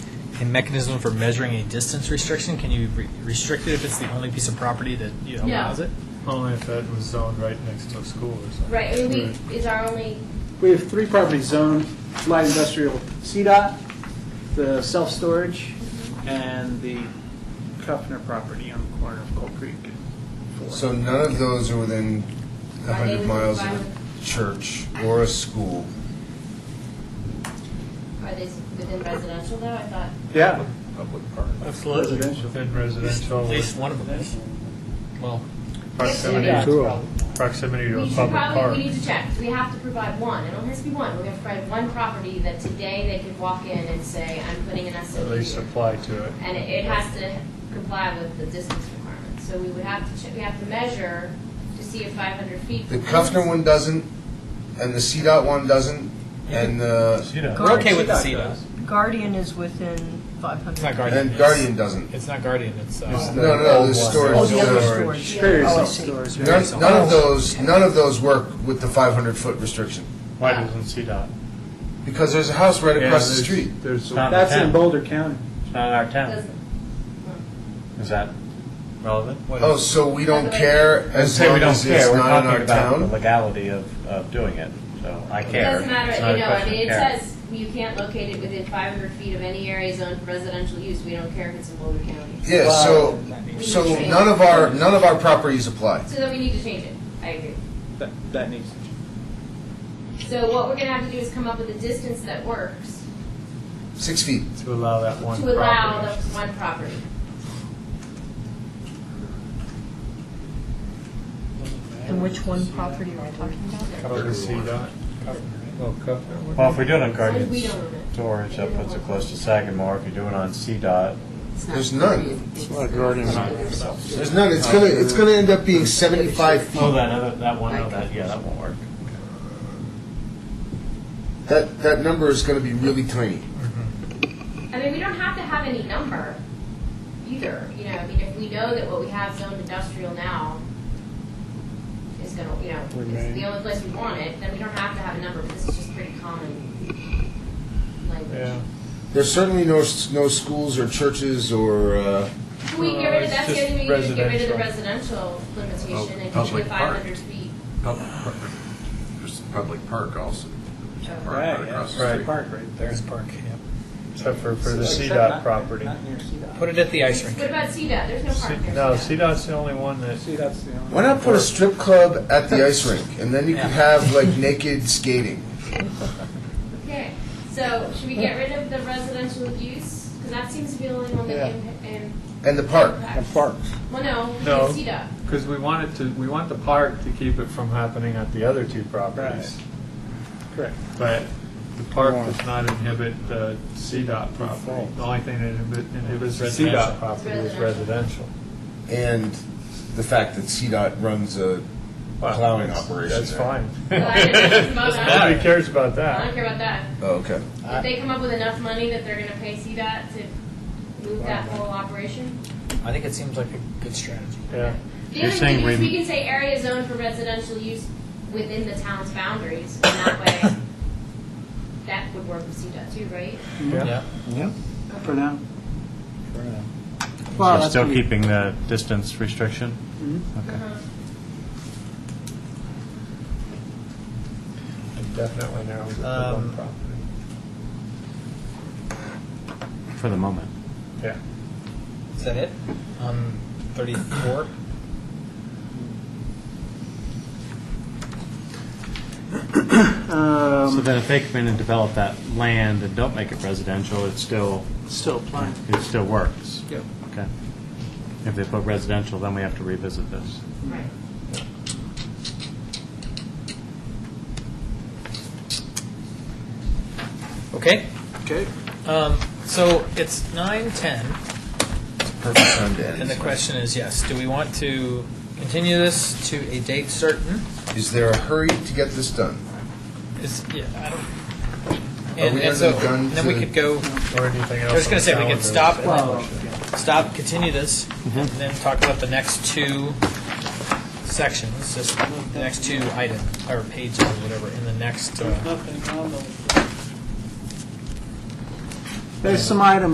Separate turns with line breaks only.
a mechanism for measuring a distance restriction? Can you re- restrict it if it's the only piece of property that you know,
Yeah.
allows it?
Only if it was zoned right next to a school or something.
Right, I mean,
Mm-hmm.
we, is our only,
We have three properties zoned, light industrial, CDOT, the self-storage, and the Kufner property on the corner of Cold Creek. Four.
So none of those are within a
Are they
hundred
within
miles of
five?
a church or a school.
are they within residential though? I thought,
Yeah,
Public park.
Absolutely.
residential.
Within
At
residential,
least one of them. is. Well,
proximity, proximity to
we
a
should
public
probably,
park.
we need to check, we have to provide one, it only has to be one, we have to provide one property that today they could walk in and say, I'm putting an
At
SOD
least
here.
apply to it.
And it- it has to comply with the distance requirements, so we would have to check, we have to measure to see if five hundred feet.
The Kufner one doesn't, and the CDOT one doesn't, and the,
You know,
we're okay with the
CDOT
CDOT.
Guardian is within 500.
It's not Guardian.
and
it's-
Guardian doesn't.
It's not Guardian. It's uh,
No, no, no, the storage.
Oh, the other
storage.
storage.
Very
Oh, I see.
self-storage.
None, none of those, none of those work with the five hundred foot restriction,
why doesn't CDOT?
because there's a house right
Yeah,
across the
there's-
street.
There's,
So That's in Boulder County.
it's not in our town.
Doesn't-
Is that relevant?
what
Oh,
is-
so we don't care as
Say we
long
don't
as it's
care, we're
not in our
talking about the
town?
legality of, of doing it, so I
It
care.
doesn't matter,
It's not a
you know, I
question of
mean, it
care.
says you can't locate it within five hundred feet of any area zoned for residential use, we don't care if it's in Boulder County.
Yeah, so,
We
so
need to change
none
it.
of our, none of our properties apply.
So then we need to change it, I agree.
That, that needs to change.
So what we're gonna have to do is come up with a distance that works
Six feet.
To allow that one
to allow the
property.
one property.
And which one property are we talking about?
Go to CDOT.
Well, if we do it on
As long as we
Guardian
don't own it.
Storage, that puts it close to Sagamore. If you do it on CDOT,
There's none.
oh,
There's none. It's gonna, it's gonna end up being seventy-five feet.
that other, that one, oh, that, yeah, that won't work.
That, that number is gonna be really tiny.
I mean, we don't have to have any number either, you know, I mean, if we know that what we have zoned industrial now is gonna, you know, is the only place we want it, then we don't have to have a number, but this is just pretty common language.
Yeah.
There's certainly no, s- no schools or churches or, uh,
Can we get rid of, that's the
Well,
only way
it's
you can get rid of the
just
residential limitation and give you
Oh, Public
the
park.
five hundred feet.
Public park. There's a public park also. There's a park
Right,
right
yeah,
across the
there's a
street.
park right there.
There's park. Yeah.
Except for, for the
Except
CDOT
not-
property.
Not near CDOT.
Put it at the ice rink.
What about CDOT? There's no park there.
No, CDOT's the only one that,
See, that's the only.
why not put a strip club at the ice rink? And then you could have like naked skating.
Okay, so should we get rid of the residential use? Because that seems to be the only one that im- im-
And the park.
impacts. Well, no, we
No.
can see that.
because we want it to, we want the park to keep it from happening at the other two properties.
Correct.
But the park does not inhibit the CDOT property. The only thing that inhibi- inhibits the CDOT property is residential.
And the fact that CDOT runs a
Wow.
plowing operation
That's
there.
fine.
Well, I don't know about that.
Nobody cares about
I don't
that.
care about that.
Oh, okay.
If they come up with enough money that they're gonna pay CDOT to move that whole operation.
I think it seems like a good strategy.
Yeah.
The
You're
other
saying
thing is,
we-
we can say area zoned for residential use within the town's boundaries, and that way, that would work with CDOT too, right?
Yeah.
For now. Well,
You're
that's
still
gonna be-
keeping the distance restriction?
Mm-hmm.
Uh-huh.
It Definitely narrows it to
Um,
one property.
For the moment.
Yeah.
Is that it? Um, thirty-four.
Uh, Um,
So then if they come in and develop that land and don't make it residential, it's still,
Still applying.
it still works?
Yep.
Okay. If they put residential, then we have to revisit this.
Right.
Okay.
Okay.
Um, so it's nine ten,
Perfect time to end.
and the question is, yes, do we want to continue this to a date certain?
Is there a hurry to get this done?
Is yeah. I don't.
Are
And,
we
and so
under the gun
then we
to-
could go.
Or anything
I
else.
was
on
gonna
the
say we could
calendar.
stop and then stop, continue this,
Mm-hmm.
and then talk about the next two sections, just the next two items or pages or whatever in the next. Uh,
There's some items